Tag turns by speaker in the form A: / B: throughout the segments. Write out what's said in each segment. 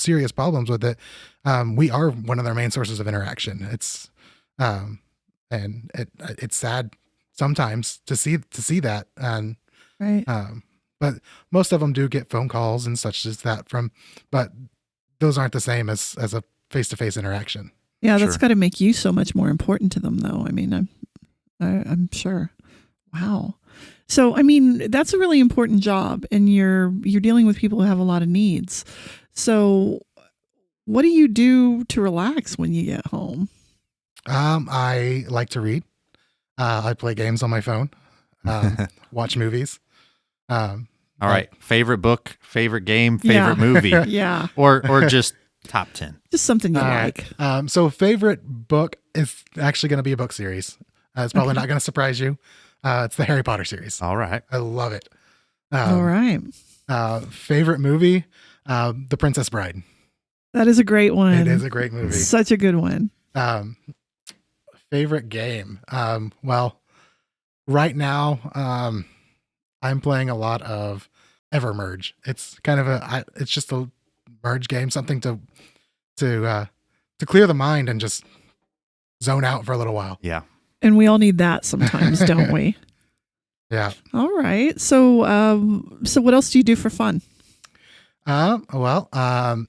A: serious problems with it, um, we are one of their main sources of interaction. It's um, and it it's sad sometimes to see to see that and
B: Right.
A: um, but most of them do get phone calls and such as that from, but those aren't the same as as a face to face interaction.
B: Yeah, that's
C: Sure.
B: got to make you so much more important to them, though. I mean, I'm, I, I'm sure. Wow. So, I mean, that's a really important job, and you're you're dealing with people who have a lot of needs. So, what do you do to relax when you get home?
A: Um, I like to read. Uh, I play games on my phone, um, watch movies. Um,
C: All right. Favorite book, favorite game,
B: Yeah.
C: favorite movie,
A: Uh,
B: Yeah,
C: or or just top ten.
B: just something you
A: All right.
B: like.
A: Um, so favorite book is actually going to be a book series. Uh, it's probably
B: Okay.
A: not going to surprise you. Uh, it's the Harry Potter series.
C: All right.
A: I love it.
B: All
A: Um,
B: right,
A: uh, favorite movie, uh, The Princess Bride.
B: that is a great one.
A: It is a great movie.
B: Such a good one.
A: Um, favorite game. Um, well, right now, um, I'm playing a lot of Evermerge. It's kind of a, I, it's just a merge game, something to, to, uh, to clear the mind and just zone out for a little while.
C: Yeah.
B: And we all need that sometimes, don't we?
A: Yeah.
B: All right. So, um, so what else do you do for fun?
A: Um, well, um,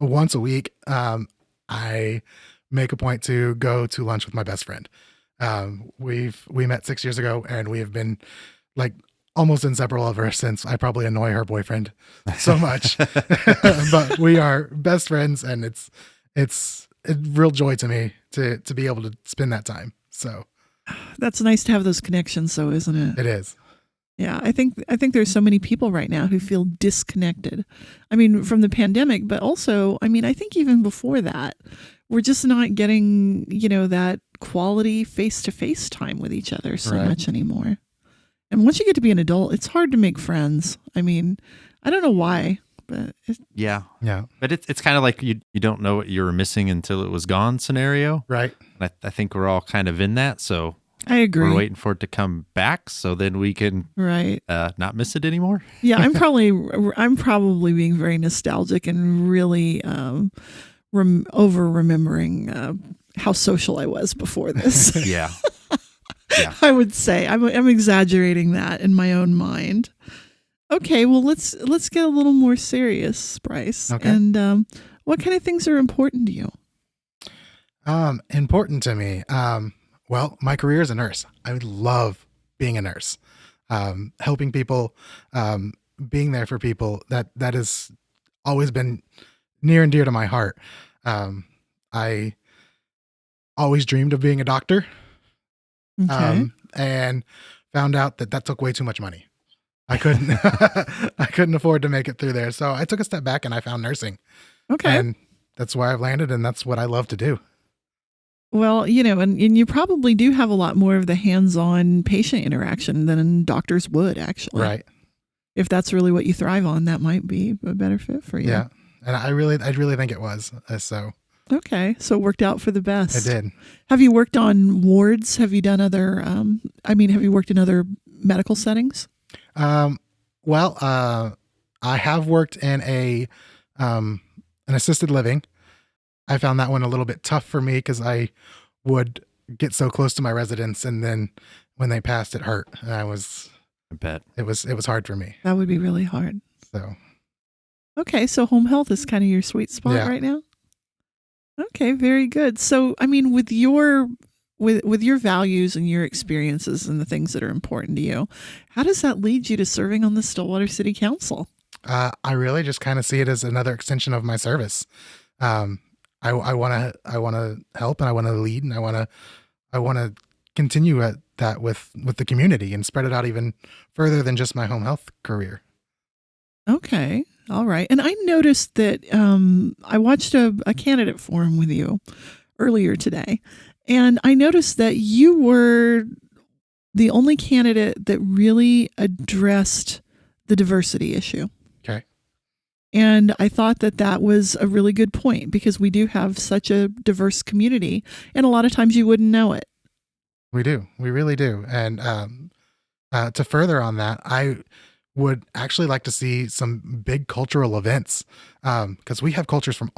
A: once a week, um, I make a point to go to lunch with my best friend. Um, we've we met six years ago, and we have been like almost inseparable ever since. I probably annoy her boyfriend so much, but we are best friends, and it's it's a real joy to me to to be able to spend that time. So
B: That's nice to have those connections, though, isn't it?
A: it is.
B: Yeah, I think I think there's so many people right now who feel disconnected. I mean, from the pandemic, but also, I mean, I think even before that, we're just not getting, you know, that quality face-to-face time with each other so
A: Right.
B: much anymore. And once you get to be an adult, it's hard to make friends. I mean, I don't know why, but it,
C: Yeah.
A: Yeah.
C: But it's it's kind of like you you don't know what you were missing until it was gone scenario.
A: Right.
C: And I, I think we're all kind of in that. So
B: I agree.
C: we're waiting for it to come back so then we can
B: Right.
C: uh, not miss it anymore.
B: yeah i'm probably i'm probably being very nostalgic and really um rem- over remembering uh, how social i was before this
C: Yeah.
B: i would say I'm, I'm exaggerating that in my own mind okay well let's let's get a little more serious bryce
A: Okay.
B: and um what kind of things are important to you
A: Um, important to me. Um, well, my career as a nurse. I would love being a nurse, um, helping people, um, being there for people. That that has always been near and dear to my heart. Um, I always dreamed of being a doctor,
B: okay
A: um, and found out that that took way too much money. I couldn't, I couldn't afford to make it through there. So I took a step back and I found nursing,
B: okay
A: and that's where I've landed, and that's what I love to do.
B: Well, you know, and, and you probably do have a lot more of the hands on patient interaction than doctors would actually.
A: Right.
B: If that's really what you thrive on, that might be a better fit for you.
A: Yeah. And I really, I really think it was. Uh, so
B: Okay. So it worked out for the
A: I
B: best.
A: did.
B: Have you worked on wards? Have you done other, um, I mean, have you worked in other medical settings?
A: Um, well, uh, I have worked in a, um, an assisted living. I found that one a little bit tough for me because I would get so close to my residents, and then when they passed, it hurt. And I was,
C: I bet.
A: it was, it was hard for me.
B: That would be really hard.
A: So
B: Okay. So home health is kind of your sweet spot
A: Yeah.
B: right now. Okay. Very good. So, I mean, with your, with, with your values and your experiences and the things that are important to you, how does that lead you to serving on the Stillwater City Council?
A: uh, I really just kind of see it as another extension of my service. Um, I, I want to, I want to help, and I want to lead, and I want to, I want to continue at that with with the community and spread it out even further than just my home health career.
B: Okay. All right. And I noticed that um, I watched a, a candidate forum with you earlier today. And I noticed that you were the only candidate that really addressed the diversity issue.
A: Okay.
B: And I thought that that was a really good point because we do have such a diverse community. And a lot of times you wouldn't know it.
A: We do, we really do, and um, uh, to further on that, I would actually like to see some big cultural events because um, we have cultures from